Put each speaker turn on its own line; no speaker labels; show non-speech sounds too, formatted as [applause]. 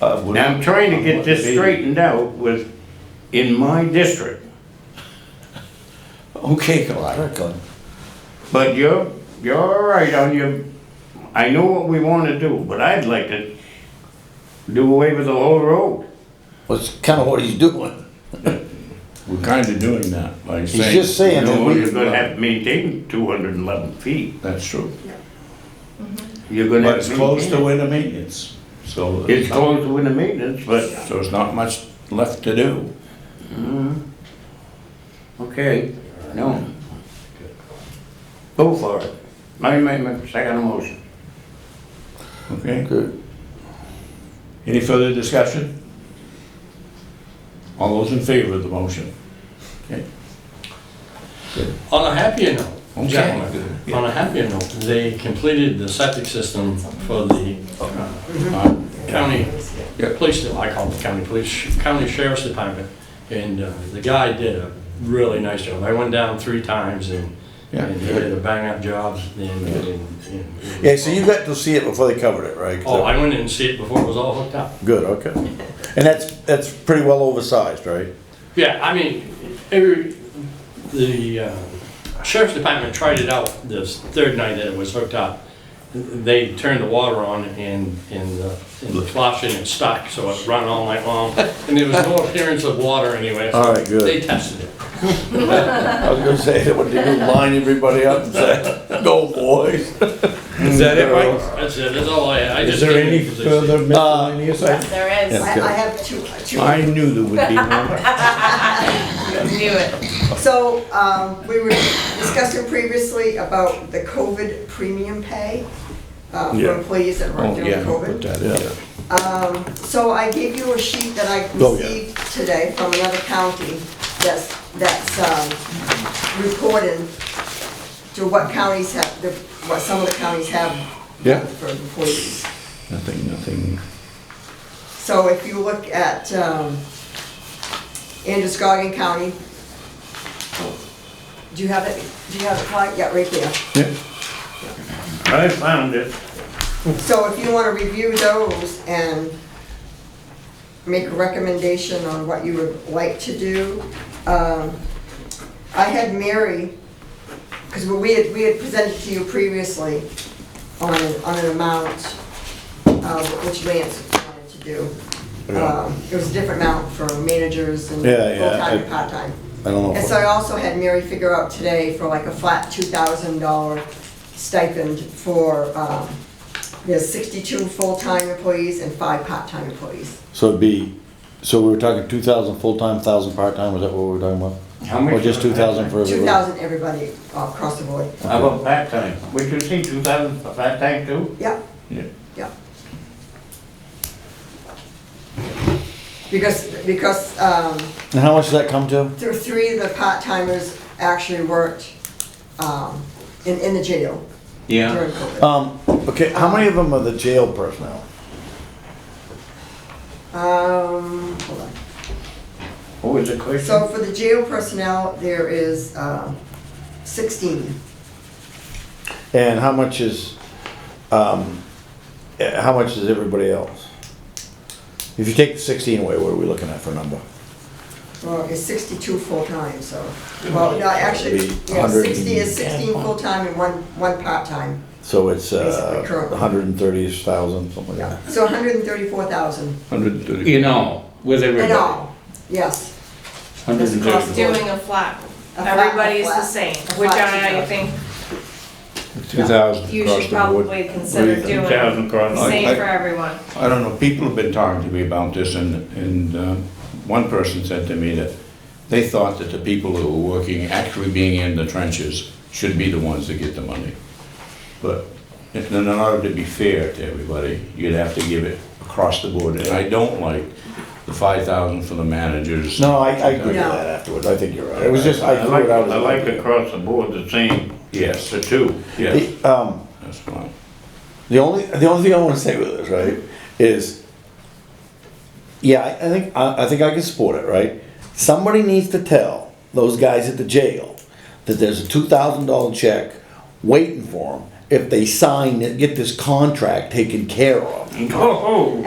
Uh, we-
Now, I'm trying to get this straightened out with, in my district,
Okay, Clyde, go-
but you're, you're all right on your, I know what we wanna do, but I'd like to do away with the whole road.
that's kind of what he's doing.
We're kind of doing that by saying.
just saying- And then
No,
we-
you're
uh,
gonna have to maintain two hundred and eleven feet.
That's true.
You're gonna
But
have
it's
to
close to
maintain it.
winter maintenance, so.
It's close to winter maintenance, but,
So there's not much left to do.
okay, no. Go for it. I make my second motion.
Okay.
Good.
Any further discussion? All those in favor of the motion? Okay.
On a happier note,
Okay.
gentlemen, on a happier note, they completed the septic system for the uh,
Uh,
county,
Yeah.
police, I call it the county police, county sheriff's department. And uh, the guy did a really nice job. I went down three times and
Yeah.
and he did a bang-up job. and- and- and-
Yeah, so you got to see it before they covered it, right? 'Cause
Oh, I went in and see it before it was all hooked up.
Good, okay. And that's, that's pretty well oversized, right?
Yeah, I mean, every, the uh, sheriff's department tried it out this third night that it was hooked up. They turned the water on and, and the and the flush and it stuck, so it run all night
[laughs]
long. And there was no appearance of water anywhere. so
All right, good.
They tested it.
I was gonna say, what do you do, line everybody up and say, go boys?
Is that it, Mike?
That's it, that's all I had. I
Is
just
there
did it
any
because I-
further
Uh,
miscellaneous? I-
There is.
Okay.
I, I have two, two,
I knew there would be
[laughs]
Oh, one.
Knew it.
so, um, we were discussing previously about the COVID premium pay, uh, for
Yeah.
employees that
Oh,
work during
yeah, put
COVID.
that in there.
So I gave you a sheet that I
Oh, yeah.
received today from another county that's, that's, um, reporting to what counties have, the- what some of the counties have
Yeah.
for employees.
Nothing, nothing.
So if you look at um, Androscoggin County, oh, do you have it, do you have it, Clyde? Yeah, right there.
Yeah.
I found it.
So if you want to review those and make a recommendation on what you would like to do, um, I had Mary, because we had, we had presented to you previously on, on an amount uh, which Lance wanted to do. Um, It was a different amount for managers and
Yeah, yeah,
full-time
I-
and part-time.
I don't know.
And
if-
so I also had Mary figure out today for like a flat two thousand dollar stipend for, um, there's sixty-two full-time employees and five part-time employees.
So it'd be, so we were talking two thousand full-time, thousand part-time, was that what we were talking about?
How much
Or just
for
two thousand for
Two
everybody?
thousand everybody uh, across the board.
How about part-time? Would you say two thousand for part-time too?
Yeah,
Yeah.
yeah. Because, because, um,
And how much does that come to?
there were three of the part-timers actually worked, um, in, in the jail during COVID.
Um, okay, how many of them are the jail personnel?
Um, hold on.
What was the
So
question?
for the jail personnel, there is um, 16.
And how much is, um, eh, how much is everybody else? If you take the sixteen away, what are we looking at for a number?
Well, it's 62 full-time, so, well, no, actually,
It'd be
yeah, 60 is
110.
16 full-time and one, one part-time.
So it's,
Basically,
uh,
correct.
hundred and thirty thousand, something like
Yeah,
that.
so 134,000
Hundred and thirty.
In all, with
in
everybody.
all, yes.
Hundred and
That's
thirty.
Doing a flat.
A flat, a
Everybody's the
flat,
same,
a
which
flat
I
two-thousand.
think
Two thousand
you
across
should
the board.
probably consider
Three
doing
thousand across.
the
I- I-
same for everyone.
I don't know, people have been talking to me about this and, and um, one person said to me that they thought that the people who were working, actually being in the trenches, should be the ones that get the money. But if- in order to be fair to everybody, you'd have to give it across the board. And I don't like the five thousand for the managers.
No, I, I agree with
No.
that afterwards, I think you're right, it was just, I
I
threw
like,
it out. as
I
an
like
idea.
across the board the same,
Yes,
the two.
yes,
The, um,
that's fine.
The only the only thing I want to say with this, right, is yeah, I, I think I, I think I can support it, right? Somebody needs to tell those guys at the jail that there's a two thousand dollar check waiting for them if they sign and get this contract taken care of.
Oh,